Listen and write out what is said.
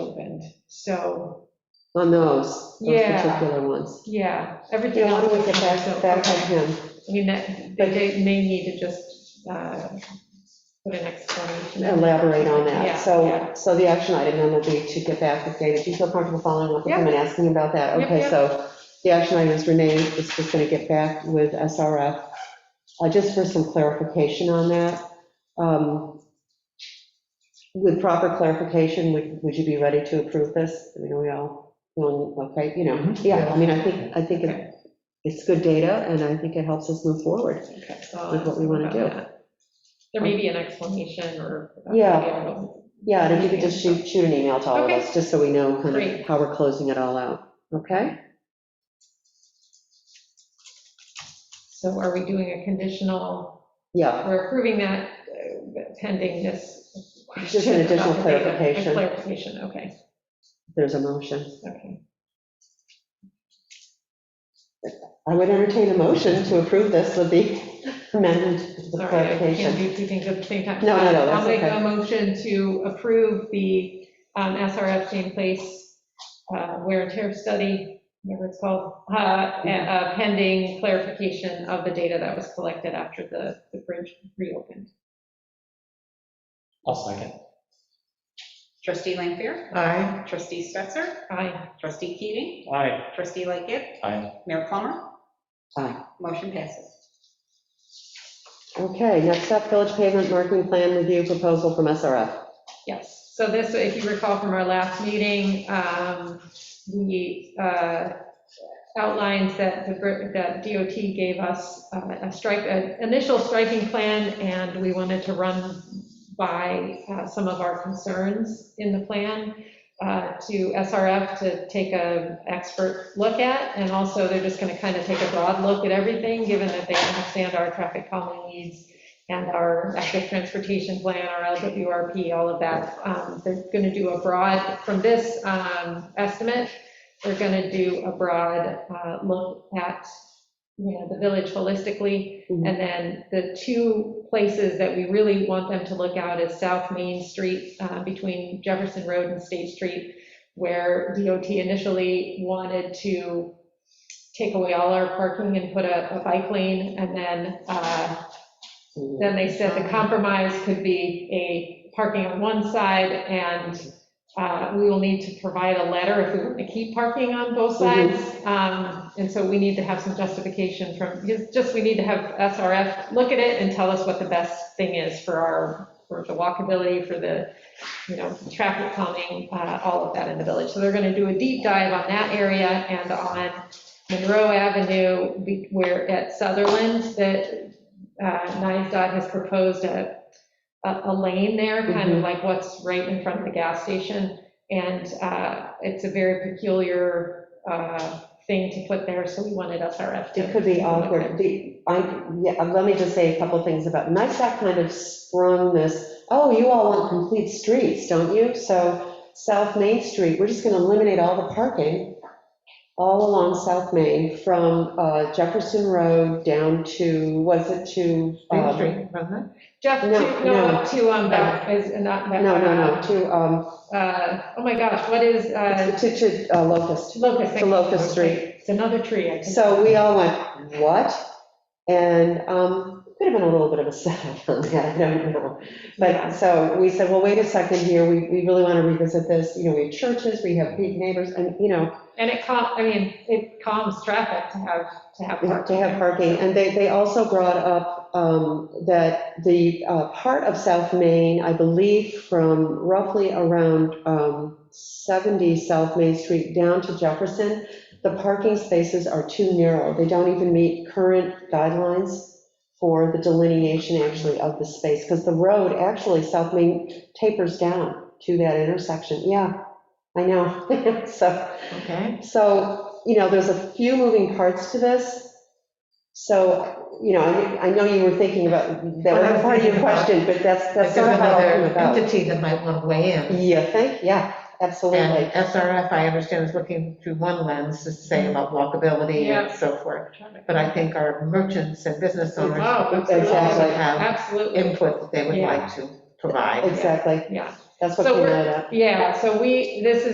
So, on those, those Yeah. particular ones. yeah, Yeah, everything else. I'm is with you, fine, back, so- back okay. on him. I mean, that, but they may need to just uh, put an explanation. Elaborate on Yeah, that. yeah. So, so the action item then would be to get back and say, if you feel comfortable following up with him and asking about that? Yep, Okay, yep. so the action item is Renee is just going to get back with SRF, uh, just for some clarification on that. Um, With proper clarification, would, would you be ready to approve this? I mean, are we all, feeling okay, you know, yeah, I mean, I think, I think it- it's good data, and I think it helps us move forward. Okay, so I'll With what we ask wanna about do. that. There may be an explanation or. Yeah. Yeah, and if you could just shoot, shoot an email to all of Okay. us, just so we know kind Great. of how we're closing it all out, okay? So are we doing a conditional, Yeah, we're approving that uh, pending this. Just an additional question about the data and clarification. Clarification, okay, there's a motion. okay. I would entertain a motion to approve this with the amendment, the Sorry, I can't clarification. do two things at the same time. No, no, no, that's I'll make okay. a motion to approve the um, SRF Jane Place uh, wear and tear study, whatever it's called, uh, uh, pending clarification of the data that was collected after the, the bridge reopened. I'll second. Trustee Lampier? Aye. Trustee Stetser? Aye. Trustee Keating? Aye. Trustee Lightgift? Aye. Mayor Plummer? Aye. Motion passes. Okay, next up, village pavement marking plan review proposal from SRF. Yes, so this, if you recall from our last meeting, um, we uh, outlined that the, that DOT gave us uh, a strike, an initial striking plan, and we wanted to run by uh, some of our concerns in the plan uh, to SRF to take a expert look at, and also they're just gonna kind of take a broad look at everything, given that they understand our traffic calming needs and our active transportation plan, our LWRP, all of that. Um, They're going to do a broad, from this um, estimate, they're going to do a broad uh, look at, you know, the village holistically. Mhm. And then the two places that we really want them to look out is South Main Street uh, between Jefferson Road and State Street, where DOT initially wanted to take away all our parking and put a a bike lane. And then uh, then they said the compromise could be a parking on one side, and uh, we will need to provide a letter if we want to keep parking on both sides. Um, And so we need to have some justification from, just- just, we need to have SRF look at it and tell us what the best thing is for our, for the walkability, for the, you know, traffic calming, uh, all of that in the village. So they're going to do a deep dive on that area and on Monroe Avenue, be- where at Sutherland, that NISDOT has proposed a, a a lane there, kind Mm-hmm. of like what's right in front of the gas station. And uh, it's a very peculiar uh, thing to put there, so we wanted SRF to. It could be awkward. The- I, yeah, uh, let me just say a couple things about, NISDOC kind of sprung this, oh, you all want complete streets, don't you? So South Main Street, we're just gonna eliminate all the parking all along South Main from uh, Jefferson Road down to, was it to? um, Jeff, to- No, no, no. to, um, back, is not. back- No, no, no, to, um, uh, Oh my gosh, what is, uh, to, to uh, Locust. Locust? To Locust Street. It's another tree. I think. So we all went, what? And um, could have been a little bit of a setup on that, I don't know. Yeah. But, uh, so we said, well, wait a second here, we, we really want to revisit this, you know, we have churches, we have big neighbors, and, you know, And it cal, I mean, it calms traffic to have, to have we have to parking. have parking. And they, they also brought up um, that the uh, part of South Main, I believe from roughly around um, 70 South Main Street down to Jefferson, the parking spaces are too narrow. They don't even meet current guidelines for the delineation actually of the space, because the road, actually, South Main tapers down to that intersection. Yeah, I know, so. Okay. So, you know, there's a few moving parts to this. So, you know, I I know you were thinking about, that Well, I was was part of your thinking about- question, but that's, Like that's sort there's of how it came another about. entity that might want to weigh in. You think? Yeah, And absolutely. SRF, I understand, is looking through one lens to say Mm-hmm. about walkability Yeah. and so forth. But I think our merchants and business owners Oh, also Exactly. have Absolutely. input that they would Yeah. like to provide. Exactly. Yeah. That's what So came we're- out of that. Yeah, so we, this is